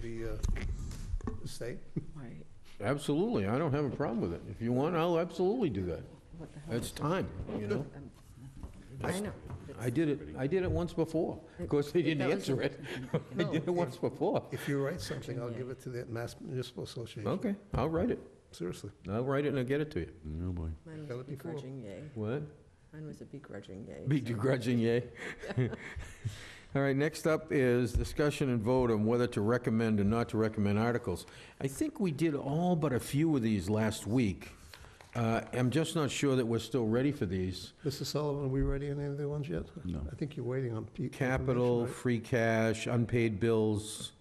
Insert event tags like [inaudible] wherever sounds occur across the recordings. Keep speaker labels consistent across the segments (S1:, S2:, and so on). S1: the uh, state?
S2: Right.
S3: Absolutely, I don't have a problem with it. If you want, I'll absolutely do that.
S2: What the hell?
S3: That's time, you know?
S2: I know.
S3: I did it, I did it once before. Of course, they didn't answer
S2: [laughs]
S3: it. I did it once before.
S1: If you write something, I'll give it to the Mass Municipal Association,
S3: Okay, I'll write it.
S1: seriously.
S3: I'll write it and I'll get it to you.
S4: Oh, boy.
S2: Mine
S1: Tell
S2: was a
S1: it before.
S2: begrudging yay.
S3: What?
S2: Mine was a begrudging yay.
S3: Be
S2: so-
S3: begrudging, yay. [laughs] All right, next up is discussion and vote on whether to recommend or not to recommend articles. I think we did all but a few of these last week. Uh, I'm just not sure that we're still ready for these.
S1: Mr. Sullivan, are we ready on any of the ones yet?
S4: No.
S1: I think you're waiting on. Pete.
S3: Capital,
S1: information,
S3: free cash, unpaid bills.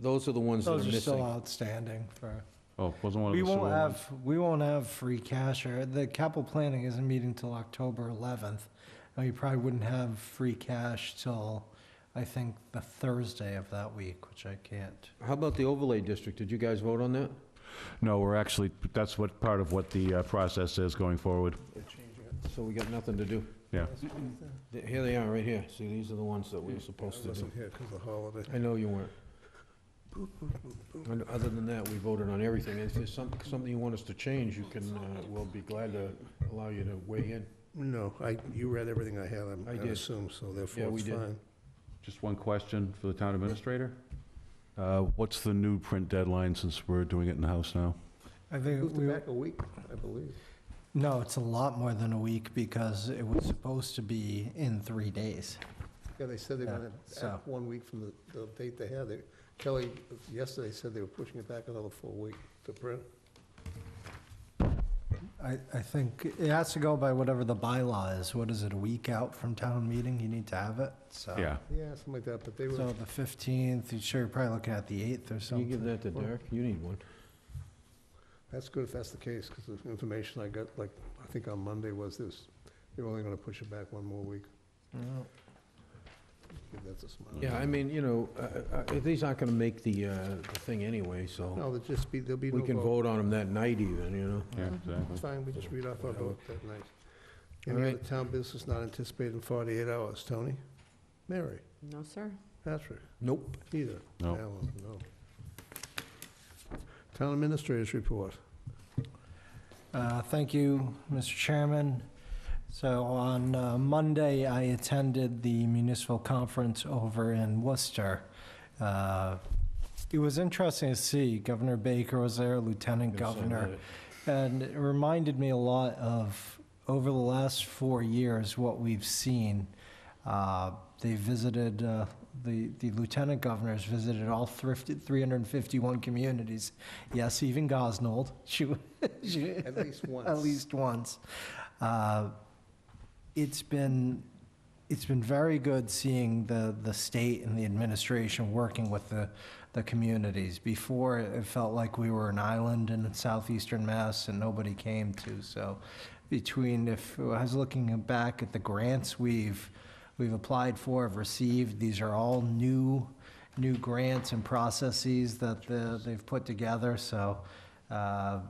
S3: Those are the ones that are
S5: Those are still
S3: missing.
S5: outstanding for,
S4: Oh, wasn't one of the
S5: we
S4: sewer
S5: won't
S4: ones?
S5: have, we won't have free cash, or the capital planning isn't meeting till October 11th. And we probably wouldn't have free cash till, I think, the Thursday of that week, which I can't.
S3: How about the overlay district? Did you guys vote on that?
S4: No, we're actually, that's what, part of what the uh, process is going forward.
S1: right?
S3: So we got nothing to do.
S4: Yeah.
S3: Th- Here they are, right here. See, these are the ones that we were
S1: I
S3: supposed to do.
S1: wasn't here because of the holiday.
S3: I know you weren't. And Other than that, we voted on everything. If there's some- something you want us to change, you can, uh, we'll be glad to allow you to weigh in.
S1: No, I, you read everything I had, I'm-
S3: I
S1: I
S3: did.
S1: assume, so
S3: Yeah,
S1: therefore
S3: we
S1: it's
S3: did.
S1: fine.
S4: Just one question for the town administrator. Uh, What's the new print deadline since we're doing it in-house now?
S5: I think,
S1: Moved
S5: we
S1: it back a week, I believe.
S5: no, it's a lot more than a week, because it was supposed to be in three days.
S1: Yeah, they said they
S5: Yeah,
S1: wanted
S5: so-
S1: act one week from the- the date they had. They- Kelly uh, yesterday said they were pushing it back another full week to print.
S5: I, I think it has to go by whatever the bylaw is. What is it, a week out from town meeting? You need to have it, so.
S4: Yeah.
S1: Yeah, something like that, but they
S5: So
S1: were,
S5: the 15th, you sure, you're probably looking at the 8th or
S3: Can you give
S5: something.
S3: that to Derek? You need one.
S1: that's good if that's the case, because the information I got, like, I think on Monday was this, they were only going to push it back one more week.
S5: Yeah.
S1: Give that to Smiley.
S3: Yeah, I mean, you know, uh, uh, these aren't going to make the uh, the thing anyway, so
S1: No, there'll just be, there'll be no
S3: we
S1: vote.
S3: can vote on them that night even, you know?
S4: Yeah,
S2: Mm-hmm.
S1: It's
S4: exactly.
S1: fine, we just read off our vote that night.
S3: All
S1: Any
S3: right.
S1: other town business not anticipated in 48 hours? Tony? Mary?
S2: No, sir.
S1: Patrick?
S3: Nope.
S1: Peter?
S4: No.
S1: Alan? No. Town administrators report.
S5: Uh, Thank you, Mr. Chairman. So on uh, Monday, I attended the municipal conference over in Worcester. Uh, It was interesting to see Governor Baker was there, Lieutenant Governor. And it reminded me a lot of, over the last four years, what we've seen. Uh, They visited, uh, the the lieutenant governors visited all thrifted, 351 communities. Yes, even Gosnold. [laughs] She wa- she-
S1: At [laughs] least once.
S5: at least once. Uh, It's been, it's been very good seeing the, the state and the administration working with the, the communities. Before, it felt like we were an island in southeastern Mass and nobody came to, so between, if, I was looking back at the grants we've, we've applied for, have received, these are all new, new grants and processes that the- they've put together, so, uh,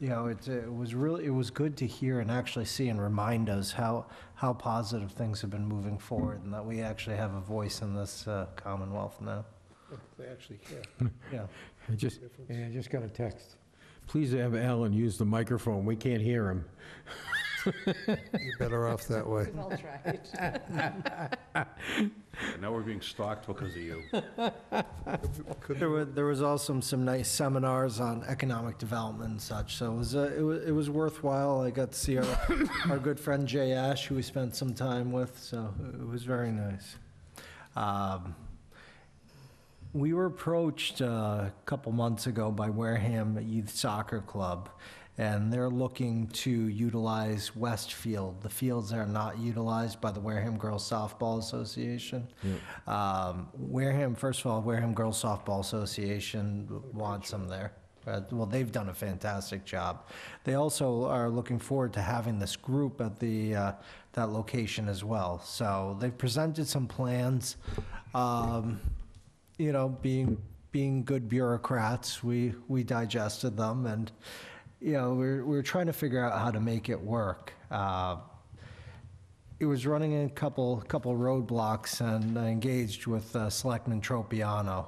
S5: you know, it, it was really, it was good to hear and actually see and remind us how, how positive things have been moving forward and that we actually have a voice in this uh, Commonwealth now.
S1: They actually care.
S5: Yeah.
S3: I just,
S1: Difference.
S3: yeah, I just got a text. Please have Alan use the microphone, we can't hear him.
S1: You're better off that
S3: [laughs]
S1: way.
S2: We've all tried.
S4: Now we're being stalked because
S3: [laughs]
S4: of you.
S1: Could
S5: There were, there was also some nice seminars on economic development and such, so it was, uh, it was, it was worthwhile. I got to see our, our good friend Jay Ash, who we spent some time with, so it was very nice. Um, We were approached uh, a couple months ago by Wareham Youth Soccer Club, and they're looking to utilize Westfield, the fields that are not utilized by the Wareham Girls Softball Association. Um, Wareham, first of all, Wareham Girls Softball Association wants them there. Uh, Well, they've done a fantastic job. They also are looking forward to having this group at the, uh, that location as well. So they've presented some plans. Um, you know, being being good bureaucrats, we we digested them, and you know, we're we're trying to figure out how to make it work. Uh, it it was running in a couple, couple roadblocks, and I engaged with uh, Selectman Tropiano